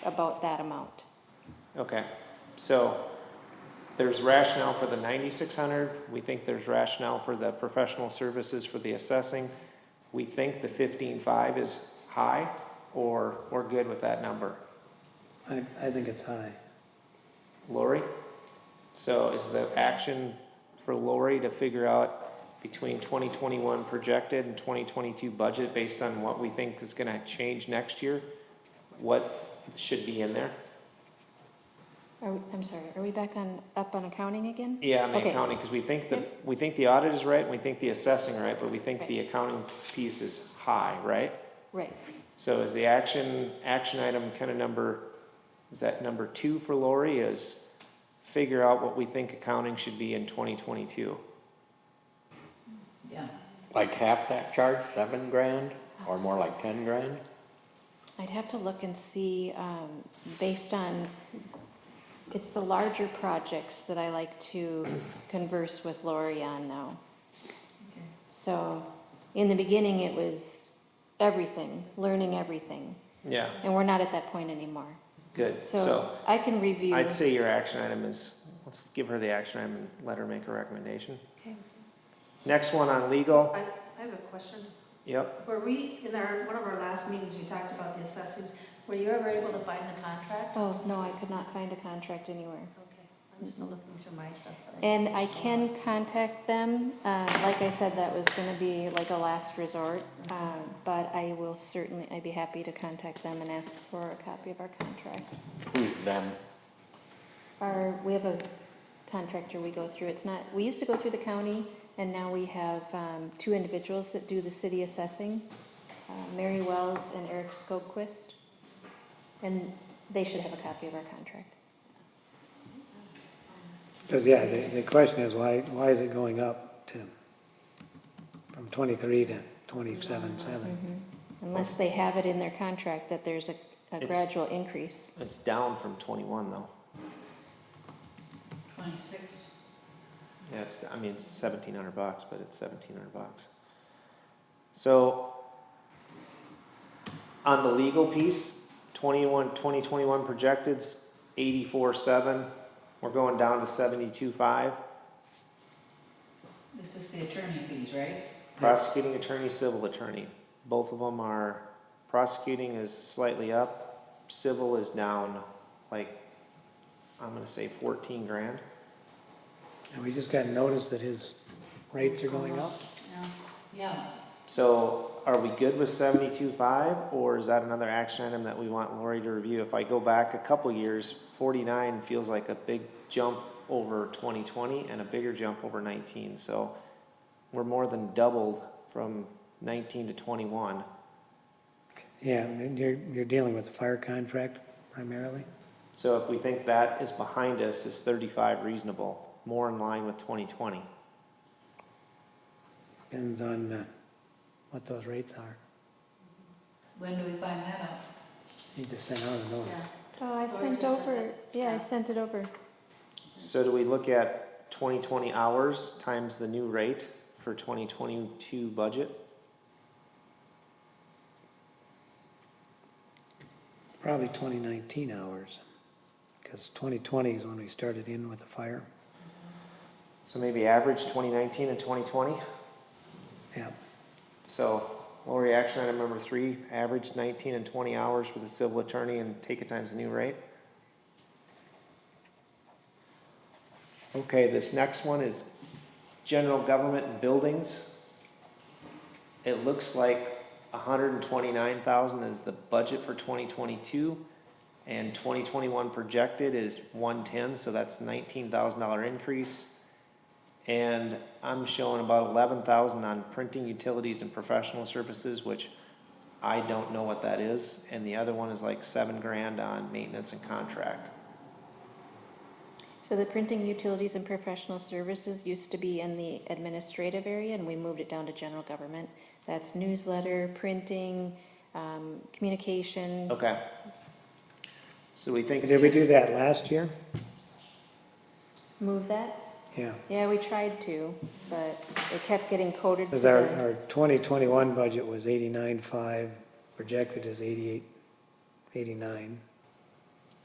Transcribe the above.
about that amount. Okay, so there's rationale for the ninety-six hundred, we think there's rationale for the professional services for the assessing. We think the fifteen-five is high, or we're good with that number. I, I think it's high. Lori? So is the action for Lori to figure out between twenty twenty-one projected and twenty twenty-two budget based on what we think is gonna change next year? What should be in there? Are we, I'm sorry, are we back on, up on accounting again? Yeah, on the Okay. accounting, because we think the, Yep. we think the audit is right, and we think the assessing right, but we think Right. the accounting piece is high, right? Right, So is the action, action item kind of number, is that number two for Lori is figure out what we think accounting should be in twenty twenty-two? Yeah, Like half that charge, seven grand, or more like ten grand? I'd have to look and see, um, based on, it's the larger projects that I like to converse with Lori on now. okay. So, in the beginning, it was everything, learning everything, Yeah, and we're not at that point anymore. good, So, so I can review. I'd say your action item is, let's give her the action item and let her make a recommendation. Okay. Next one on legal, I, I have a question. yep, Were we, in our, one of our last meetings, we talked about the assessors. Were you ever able to find the contract? Oh, no, I could not find a contract anywhere. Okay, I'm just looking through my stuff. And I can contact them, uh, like I said, that was gonna be like a last resort, um, but I will certainly, I'd be happy to contact them and ask for a copy of our contract. Who's them? Our, we have a contractor we go through, it's not, we used to go through the county, and now we have, um, two individuals that do the city assessing, uh, Mary Wells and Eric Skogquist, and they should have a copy of our contract. Because, yeah, the, the question is, why, why is it going up, Tim? From twenty-three to twenty-seven, seven? Unless they have it in their contract that there's a, a It's- gradual increase. it's down from twenty-one though. Twenty-six. Yeah, it's, I mean, it's seventeen hundred bucks, but it's seventeen hundred bucks. So, on the legal piece, twenty-one, twenty twenty-one projected's eighty-four seven, we're going down to seventy-two five. This is the attorney fees, right? Prosecuting attorney, civil attorney, both of them are, prosecuting is slightly up, civil is down, like, I'm gonna say fourteen grand. And we just got notice that his rates are going up? Yeah. Yeah, So are we good with seventy-two five, or is that another action item that we want Lori to review? If I go back a couple years, forty-nine feels like a big jump over twenty twenty and a bigger jump over nineteen, so we're more than doubled from nineteen to twenty-one. Yeah, and you're, you're dealing with the fire contract primarily? So if we think that is behind us, is thirty-five reasonable, more in line with twenty twenty? Depends on uh, what those rates are. when do we find that out? He just sent out a notice. Oh, I sent Or just send over, it. yeah, I Yeah. sent it over. So do we look at twenty twenty hours times the new rate for twenty twenty-two budget? Probably twenty nineteen hours, because twenty twenty is when we started in with the fire. So maybe average 2019 and 2020. Yeah, So Lori, action item number three, average 19 and 20 hours for the civil attorney and take it times the new rate. Okay, this next one is general government and buildings. It looks like 129,000 is the budget for 2022 and 2021 projected is 110, so that's $19,000 increase. And I'm showing about eleven thousand on printing utilities and professional services, which I don't know what that is. And the other one is like seven grand on maintenance and contract. So the printing utilities and professional services used to be in the administrative area, and we moved it down to general government. That's newsletter, printing, um, communication. Okay. So we think. did we do that last year? Move that? Yeah. Yeah, we tried to, but it kept getting coded to Because our, the, our 2021 budget was 89.5, projected is 88, 89.